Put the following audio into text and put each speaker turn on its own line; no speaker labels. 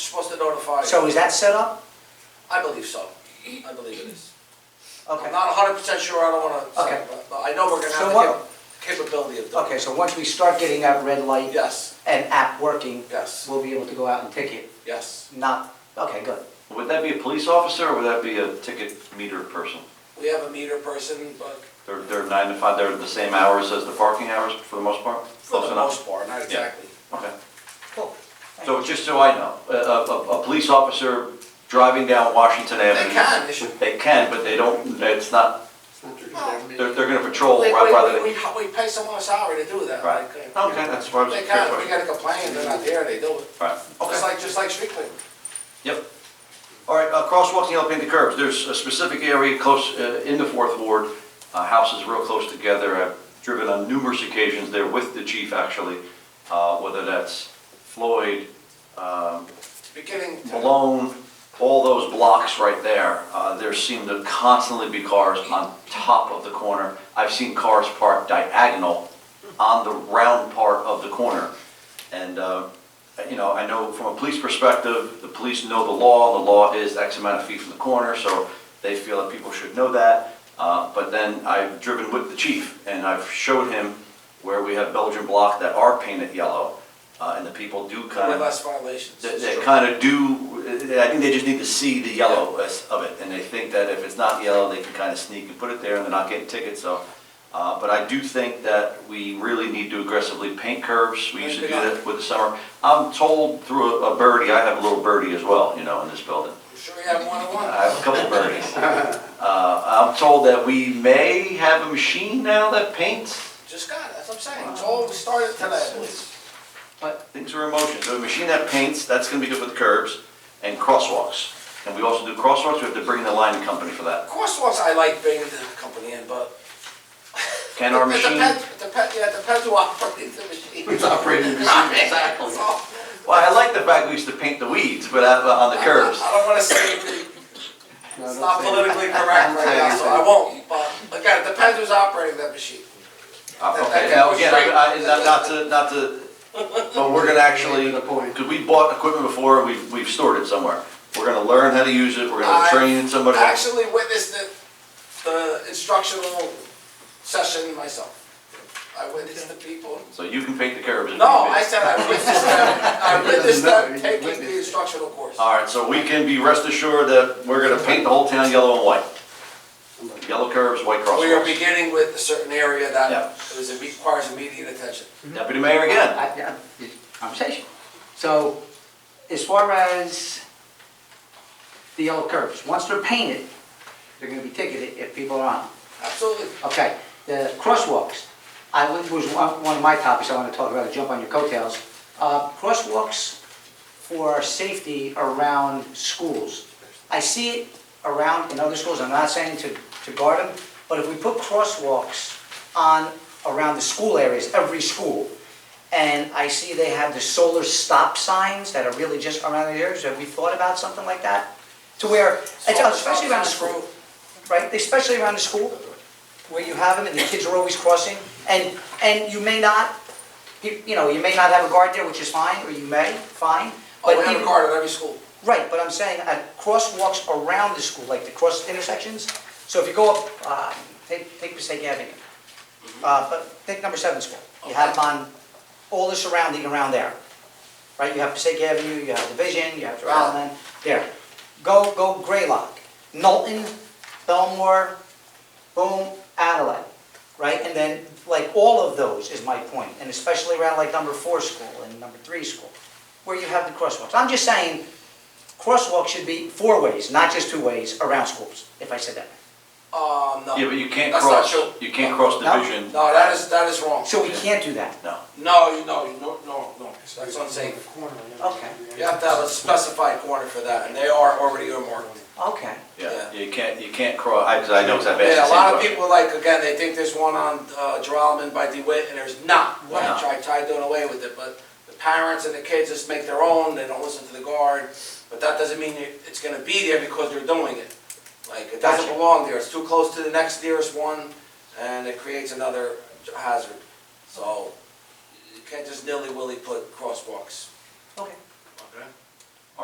notify.
So is that set up?
I believe so. I believe it is. I'm
Okay.
not hundred percent sure, I don't wanna say,
Okay.
but- but I know we're gonna
So
have
what-
the cap- capability of doing.
Okay, so once we start getting that red light
Yes,
and app working,
yes,
we'll be able to go out and ticket,
yes.
not, okay, good.
Would that be a police officer or would that be a ticket meter person?
We have a meter person, but
They're, they're nine to five, they're the same hours as the parking hours for the most part?
for
Close
the
enough?
most part, not exactly.
Okay.
Cool.
So just so I know, a, a, a- a police officer driving down Washington Avenue.
can, they should.
They can, but they don't, it's not, they're, they're gonna patrol
We, we,
right Oh, rather than.
we, we pay someone a salary to do that.
Right,
like, uh,
okay, that's what I was.
They can, we gotta complain, they're not there, they do it.
Right,
Just
okay,
like, just like street cleaning.
yep. All right, uh, crosswalks and yellow painted curbs, there's a specific area close, uh, in the fourth ward, uh, houses real close together, I've driven on numerous occasions there with the chief actually, uh, whether that's Floyd, um,
Beginning to,
Malone, all those blocks right there, uh, there seem to constantly be cars on top of the corner. I've seen cars parked diagonal on the round part of the corner. And, uh, you know, I know from a police perspective, the police know the law, the law is X amount of feet from the corner, so they feel that people should know that. Uh, But then I've driven with the chief, and I've showed him where we have Belgian block that are painted yellow, uh, and the people do kind
with
of
less violations.
that, that kind of do, I think they just need to see the yellow of it, and they think that if it's not yellow, they can kind of sneak and put it there, and they're not getting tickets, so. Uh, but I do think that we really need to aggressively paint curves, we used to do that with the summer. I'm told through a a birdie, I have a little birdie as well, you know, in this building.
I'm Sure you have one on one.
I have a couple birdies. Uh, I'm told that we may have a machine now that paints,
Just got it, that's what I'm saying, it's all we started today, I believe.
Things are in motion, so a machine that paints, that's gonna be good for the curbs, and crosswalks. And we also do crosswalks, we have to bring in the line company for
Of
that.
course, once I like bringing the company in, but.
Can our
It
machine,
depends- it Depends, yeah, it depends who operates the machine.
Who's operating the machine, exactly.
That's all.
well, I like the fact we used to paint the weeds, but uh, on the curbs.
I don't wanna say, it's not politically correct right now, so I won't, but again, it depends who's operating that machine.
Uh, Okay, now again, I, I, not not to, not to, but we're gonna actually, because we bought equipment before, and we've, we've stored it somewhere. We're gonna learn how to use it, we're gonna
I
train somebody.
Actually witnessed the, the instructional session myself. I witnessed the people.
So you can paint the curbs. if
No,
need be.
I said I witnessed them, I witnessed
No,
them
you
taking the
witnessed.
instructional course.
All right, so we can be rest assured that we're gonna paint the whole town yellow and white. Yellow curves, white
We are
crosswalks.
beginning with a certain area that
Yeah.
is, requires immediate attention.
Deputy Mayor again.
I- I- Conversation. So as far as the yellow curves, once they're painted, they're gonna be ticketed if people are on them.
Absolutely.
Okay, the crosswalks, I, was one one of my topics I want to talk about, to jump on your coattails. Uh, Crosswalks for safety around schools. I see it around in other schools, I'm not saying to, to guard them, but if we put crosswalks on, around the school areas, every school, and I see they have the solar stop signs that are really just around the areas, have we thought about something like that? To where, especially around the school right, especially around the school, where you have them and the kids are always crossing, and, and you may not, you you know, you may not have a guard there, which is fine, or you may, fine,
Oh,
but
we have a
even-
guard at every school.
Right, but I'm saying at crosswalks around the school, like the cross intersections, so if you go up, uh, take, take Passaic Avenue, uh, but take number seven school, you have them on all the surrounding around there, right, you have Passaic Avenue, you have Division, you have Development, there. Go, go Graylock, Knowlton, Belmore, Boom, Adelaide, right, and then, like, all of those is my point, and especially around like number four school and number three school, where you have the crosswalks, I'm just saying, crosswalk should be four ways, not just two ways around schools, if I said that.
Um, no.
Yeah, but you can't
That's not
cross,
true.
you can't cross
No.
division.
No, that is, that is wrong.
So we can't do that.
No.
No, you, no, you, no, no, no, that's what I'm saying.
Okay.
You have to have a specified corner for that, and they are already earmarked.
Okay.
Yeah, you can't, you can't cross, I, 'cause I know, 'cause I've asked
Yeah,
the
a
same
lot of
question.
people, like, again, they think there's one on, uh, Geralman by DeWitt, and there's not.
Wow.
I tried, tried doing away with it, but the parents and the kids just make their own, they don't listen to the guard, but that doesn't mean it- it's gonna be there because they're doing it. Like, it doesn't
Gotcha.
belong there, it's too close to the next nearest one, and it creates another hazard. So, you can't just nilly-willy put crosswalks,
Okay.
okay?